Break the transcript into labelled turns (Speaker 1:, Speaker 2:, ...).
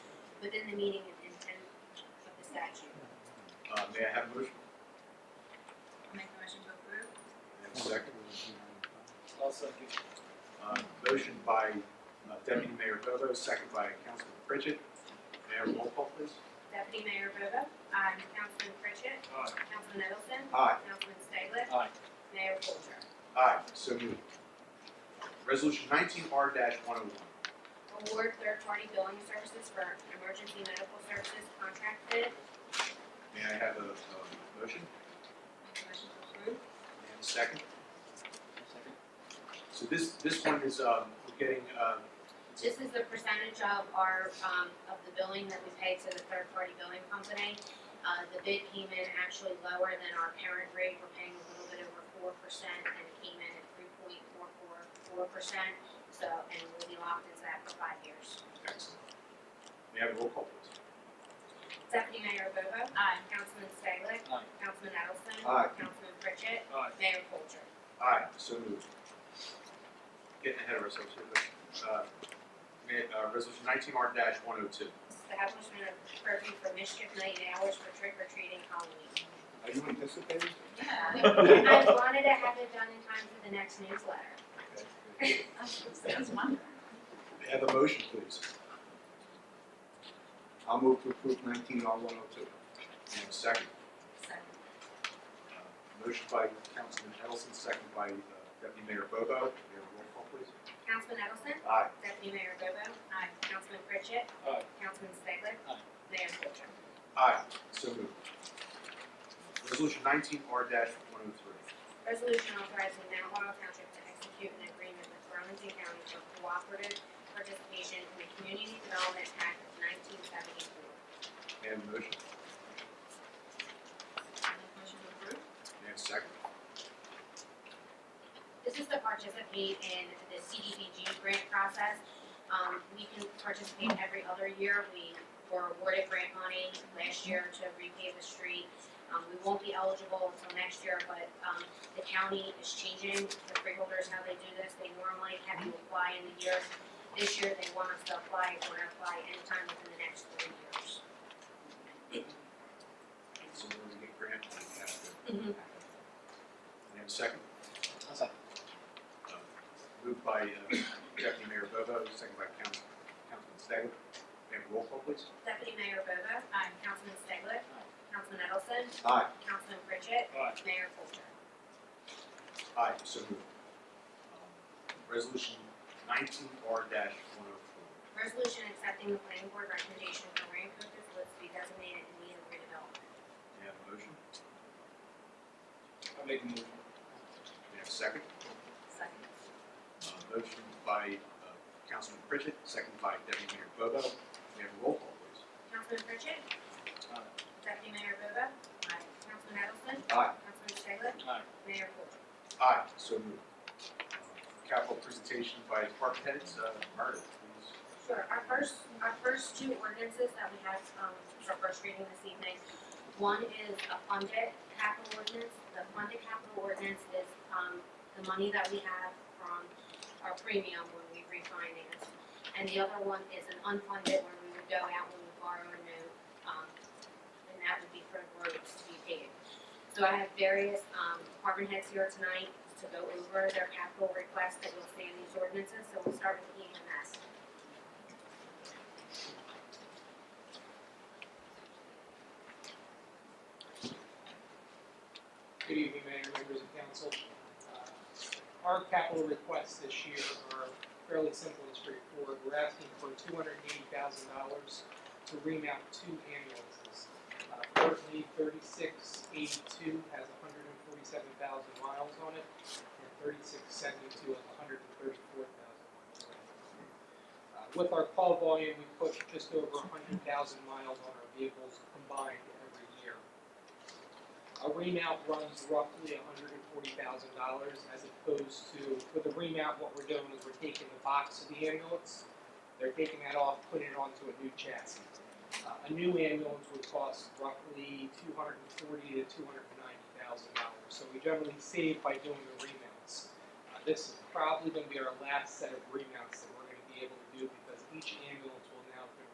Speaker 1: within the meaning and intent of the statute.
Speaker 2: Uh, may I have a motion?
Speaker 1: I'll make a motion to approve.
Speaker 2: May I have a second?
Speaker 3: I'll second.
Speaker 2: Uh, motion by uh, Deputy Mayor Bobo, second by Councilman Pritchett. Mayor, roll call please.
Speaker 1: Deputy Mayor Bobo? Aye. Councilman Pritchett?
Speaker 3: Aye.
Speaker 1: Councilman Nettleton?
Speaker 2: Aye.
Speaker 1: Councilman Staglitt?
Speaker 3: Aye.
Speaker 1: Mayor Coulter?
Speaker 2: Aye, so moved. Resolution nineteen R one oh one.
Speaker 1: Award third-party billing services for emergency medical services contract bid.
Speaker 2: May I have a, a motion?
Speaker 1: Make a motion to approve.
Speaker 2: May I have a second?
Speaker 3: Second.
Speaker 2: So this, this one is, um, we're getting, uh,
Speaker 1: This is the percentage of our, um, of the billing that we pay to the third-party billing company. Uh, the bid came in actually lower than our parent rate, we're paying a little bit over four percent, and it came in at three point four four four percent. So, and we'll be locked into that for five years.
Speaker 2: excellent. May I have a roll call please?
Speaker 1: Deputy Mayor Bobo? Aye. Councilman Staglitt?
Speaker 3: Aye.
Speaker 1: Councilman Edelson?
Speaker 2: Aye.
Speaker 1: Councilman Pritchett?
Speaker 3: Aye.
Speaker 1: Mayor Coulter?
Speaker 2: Aye, so moved. Getting ahead of ourselves here, but, uh, may, uh, resolution nineteen R one oh two.
Speaker 1: Establishment of curfew for mischief night and hours for trick or treating Halloween.
Speaker 4: Are you anticipating?
Speaker 1: I wanted to have it done in time for the next newsletter.
Speaker 5: Sounds wonderful.
Speaker 2: May I have a motion please?
Speaker 4: I'll move to approve nineteen R one oh two.
Speaker 2: May I have a second?
Speaker 1: Second.
Speaker 2: Uh, Motion by Councilman Edelson, second by uh, Deputy Mayor Bobo. May I have a roll call please?
Speaker 1: Councilman Edelson?
Speaker 2: Aye.
Speaker 1: Deputy Mayor Bobo? Aye. Councilman Pritchett?
Speaker 3: Aye.
Speaker 1: Councilman Staglitt?
Speaker 3: Aye.
Speaker 1: Mayor Coulter?
Speaker 2: Aye, so moved. Resolution nineteen R one oh three.
Speaker 1: Resolution authorizing Mount Laurel Township to execute an agreement with Burlington County for cooperative participation in the Community Development Act of nineteen seventy-four.
Speaker 2: May I have a motion?
Speaker 5: Motion to approve?
Speaker 2: May I have a second?
Speaker 1: This is to participate in the CDBG grant process. Um, we can participate every other year. We were awarded grant money last year to repave the street. Um, we won't be eligible until next year, but, um, the county is changing the freeholders, how they do this. They normally have you apply in the year. This year, they want us to apply, we're gonna apply anytime within the next three years.
Speaker 2: So we're gonna get grant, money, we have to-
Speaker 1: Mhm.
Speaker 2: May I have a second?
Speaker 3: I'll second.
Speaker 2: Uh, Moved by uh, Deputy Mayor Bobo, second by Council- Councilman Staglitt. May I have a roll call please?
Speaker 1: Deputy Mayor Bobo? Aye. Councilman Staglitt?
Speaker 3: Aye.
Speaker 1: Councilman Edelson?
Speaker 2: Aye.
Speaker 1: Councilman Pritchett?
Speaker 3: Aye.
Speaker 1: Mayor Coulter?
Speaker 2: Aye, so moved. Um, Resolution nineteen R one oh four.
Speaker 1: Resolution accepting the planning board recommendation for Rancho Foods to be designated in need of redevelopment.
Speaker 2: May I have a motion?
Speaker 3: I'll make a motion.
Speaker 2: May I have a second?
Speaker 1: Second.
Speaker 2: Uh, Motion by uh, Councilman Pritchett, second by Deputy Mayor Bobo. May I have a roll call please?
Speaker 1: Councilman Pritchett?
Speaker 3: Aye.
Speaker 1: Deputy Mayor Bobo? Aye. Councilman Edelson?
Speaker 2: Aye.
Speaker 1: Councilman Staglitt?
Speaker 3: Aye.
Speaker 1: Mayor Coulter?
Speaker 2: Aye, so moved. Uh, Capital presentation by department heads, uh, Meredith, please.
Speaker 1: Sure, our first, our first two ordinances that we have, um, for first reading this evening. One is a funded capital ordinance. The funded capital ordinance is, um, the money that we have from our premium when we refinance. And the other one is an unfunded where we would go out and we would borrow a note, um, and that would be for roads to be paved. So I have various, um, department heads here tonight to go over their capital requests that you'll see in these ordinances, so we'll start with E EMS.
Speaker 6: Good evening, Mayor, members of council. Uh, Our capital requests this year are fairly simple and straightforward. We're asking for two hundred and eighty thousand dollars to remount two ambulances. Ford V thirty-six eighty-two has hundred and forty-seven thousand miles on it, and thirty-six seventy-two has hundred and thirty-four thousand miles on it. Uh, With our call volume, we push just over hundred thousand miles on our vehicles combined every year. A remount runs roughly hundred and forty thousand dollars as opposed to, with a remount, what we're doing is we're taking the box of the ambulance, they're taking that off, putting it onto a new chassis. Uh, a new ambulance would cost roughly two hundred and forty to two hundred and ninety thousand dollars, so we generally save by doing the remounts. Uh, this is probably gonna be our last set of remounts that we're gonna be able to do because each ambulance